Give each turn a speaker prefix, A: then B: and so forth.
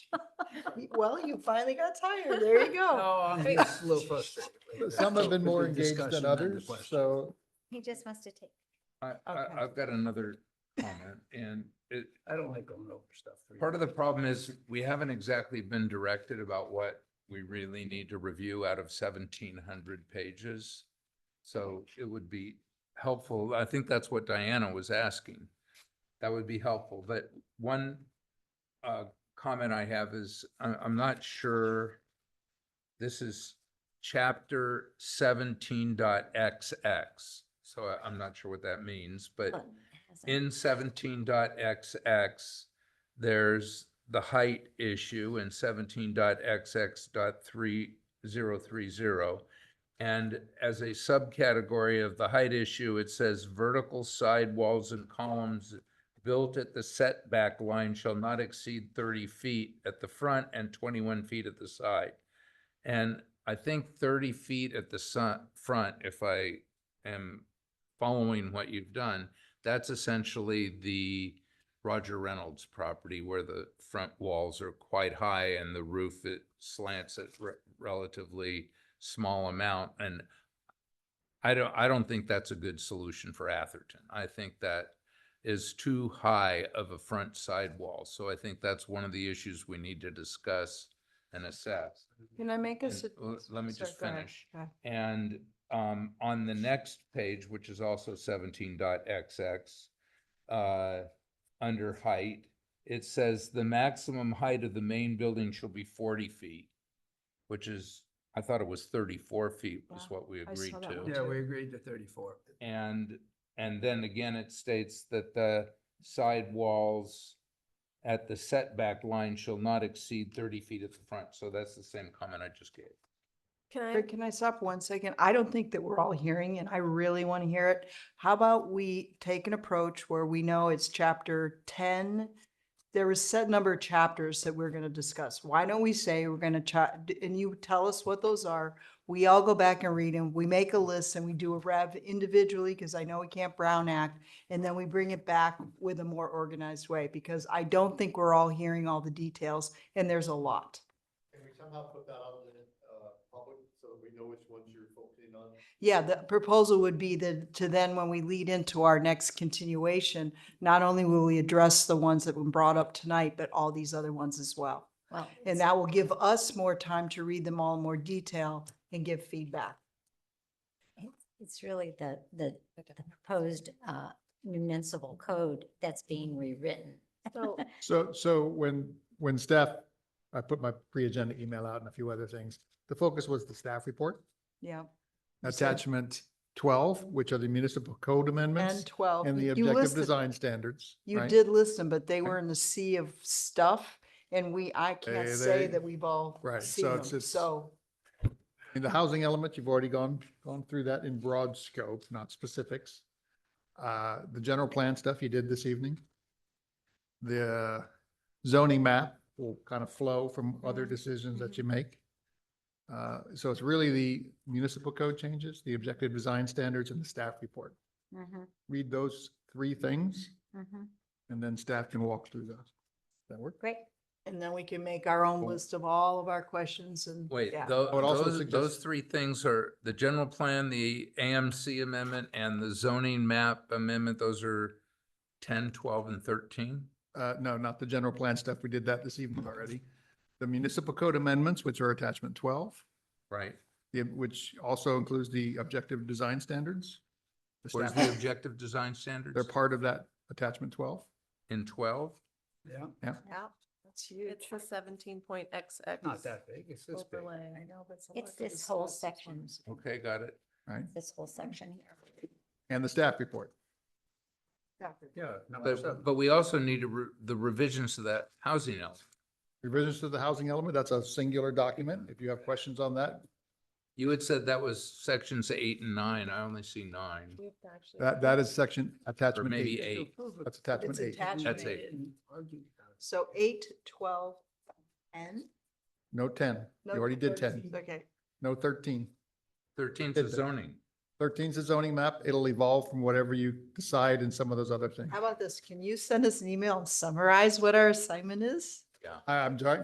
A: Well, you finally got tired. There you go.
B: No, I'm just a little frustrated. with
C: Some have been
B: the
C: more engaged
B: discussion
C: than
B: the
C: others,
B: question.
C: so
D: He just wants to take.
E: I, I,
A: Okay.
E: I've got another comment and it,
B: I don't like going over stuff. for you.
E: part of the problem is we haven't exactly been directed about what we really need to review out of seventeen hundred pages. So it would be helpful, I think that's what Diana was asking. That would be helpful, but one uh, comment I have is, I, I'm not sure this is chapter seventeen dot XX, so I- I'm not sure what that means, but
D: Well, it hasn't.
E: in seventeen dot XX, there's the height issue in seventeen dot XX dot three zero three zero. And as a subcategory of the height issue, it says vertical side walls and columns built at the setback line shall not exceed thirty feet at the front and twenty-one feet at the side. And I think thirty feet at the sun, front, if I am following what you've done, that's essentially the Roger Reynolds property where the front walls are quite high and the roof it slants at re- relatively small amount. And I don't, I don't think that's a good solution for Atherton. I think that is too high of a front sidewall. So I think that's one of the issues we need to discuss and assess.
F: Can I make a?
E: And
F: sug-
E: l- let me
F: sorry,
E: just
F: go ahead.
E: finish.
F: Go ahead.
E: And um, on the next page, which is also seventeen dot XX, uh, under height, it says the maximum height of the main building shall be forty feet, which is, I thought it was thirty-four feet was
F: Wow,
E: what we
F: I
E: agreed
F: saw that one
E: to.
B: Yeah, we agreed to thirty-four.
E: And, and then again, it states that the side walls at the setback line shall not exceed thirty feet at the front. So that's the same comment I just gave.
F: Can I?
A: Craig, can I stop one second? I don't think that we're all hearing and I really want to hear it. How about we take an approach where we know it's chapter ten? There was set number of chapters that we're going to discuss. Why don't we say we're going to chat, and you tell us what those are? We all go back and read them. We make a list and we do a rev individually because I know we can't Brown Act. And then we bring it back with a more organized way because I don't think we're all hearing all the details and there's a lot.
G: Can we somehow put that out in the, uh, public so that we know which ones you're focusing on?
A: Yeah, the proposal would be that to then, when we lead into our next continuation, not only will we address the ones that were brought up tonight, but all these other ones as well.
D: Well,
A: And that will give us more time to read them all in more detail and give feedback.
D: it's- It's really the, the the proposed uh, municipal code that's being rewritten.
F: So-
C: So, so when, when staff, I put my pre-agenda email out and a few other things, the focus was the staff report,
A: Yeah,
C: attachment twelve, which are the municipal code amendments
A: and twelve.
C: and the
A: you
C: objective
A: listed-
C: design standards.
A: You
C: right?
A: did list them, but they were in the sea of stuff and we, I can't
C: They-
A: say
C: they-
A: that we've all
C: right,
A: seen
C: so
A: them.
C: it's- it's-
A: So,
C: In the housing element, you've already gone, gone through that in broad scope, not specifics. Uh, the general plan stuff you did this evening. The zoning map will kind of flow from other
D: Mhm,
C: decisions that you make. Uh, so it's really the municipal code changes, the objective design standards and the staff report.
D: Mhm,
C: Read those three things
D: mhm.
C: and then staff can walk through those. Does That work?
D: Great.
A: and then we can make our own
C: Cool.
A: list of all of our questions and.
E: Wait,
A: yeah.
E: tho-
C: I would also
E: those,
C: suggest-
E: those three things are the general plan, the AMC amendment and the zoning map amendment. Those are 10, 12, and thirteen?
C: Uh, no, not the general plan stuff. We did that this evening already. The municipal code amendments, which are attachment twelve.
E: Right?
C: the- which also includes the objective design standards. The
E: Where's
C: staff,
E: the objective design standards?
C: they're part of that attachment twelve.
E: In twelve?
B: Yeah,
A: Yeah, that's huge.
F: It's the seventeen point XX.
B: not that big. It's this big.
F: Overlay.
A: I know, but a
D: It's
A: lot to
D: this whole
A: discuss.
D: section,
E: Okay, got it.
D: this whole section here.
C: And the staff report.
A: Exactly.
B: Yeah, number
E: But,
B: seven.
E: but we also need to re- the revisions to that housing element.
C: Revisions to the housing element, that's a singular document. If you have questions on that,
E: You had said that was sections eight and nine. I only see nine.
F: We have to actually-
C: that, that is section
E: Or
C: attachment
E: maybe
C: eight.
E: eight.
C: That's attachment
A: It's
C: eight.
A: attachment.
E: That's eight.
A: So eight, twelve, and?
C: No ten. You
A: no,
C: already did
A: thirteen.
C: ten.
A: Okay,
C: No thirteen.
E: Thirteen's the
C: Did that.
E: zoning.
C: Thirteen's the zoning map. It'll evolve from whatever you decide and some of those other things.
A: how about this? Can you send us an email and summarize what our assignment is?
C: I, I'm sorry,